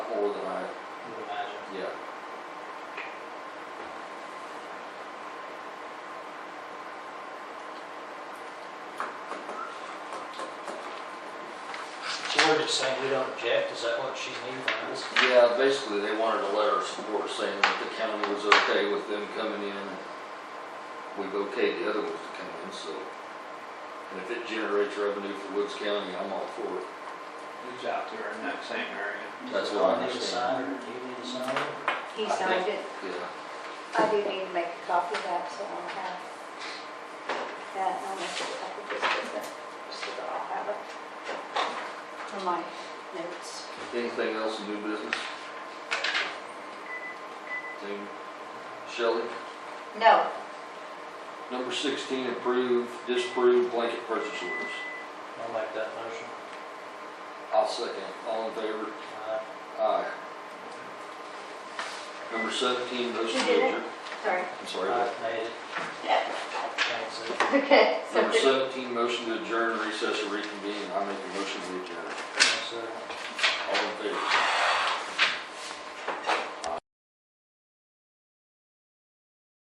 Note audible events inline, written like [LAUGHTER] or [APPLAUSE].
We're just saying we don't object, is that what she's needing from us? Yeah, basically, they wanted a letter of support saying that the county was okay with them coming in. We've okayed the other ones to come in, so. And if it generates revenue for Woods County, I'm all for it. Who's out there in that same area? That's what I Do you need to understand. sign it? Do you need to sign it? He signed it. Yeah. I do need to make a copy of that, so I'll have that. I'll make a copy just so that, just so that I'll have it for my notes. Anything else in new business? Anything? Shelley? No, Number sixteen, approve, disapprove blanket purchase orders. I'll make that motion. I'll second. All in favor? All right. Aye. Number seventeen, motion to You did it? adjourn. sorry. I'm sorry. I what? made it, thanks. Lee. [LAUGHS] Okay, so Number seventeen, motion to adjourn, recess, or reconvene. I make a motion to adjourn. Thanks, Lee.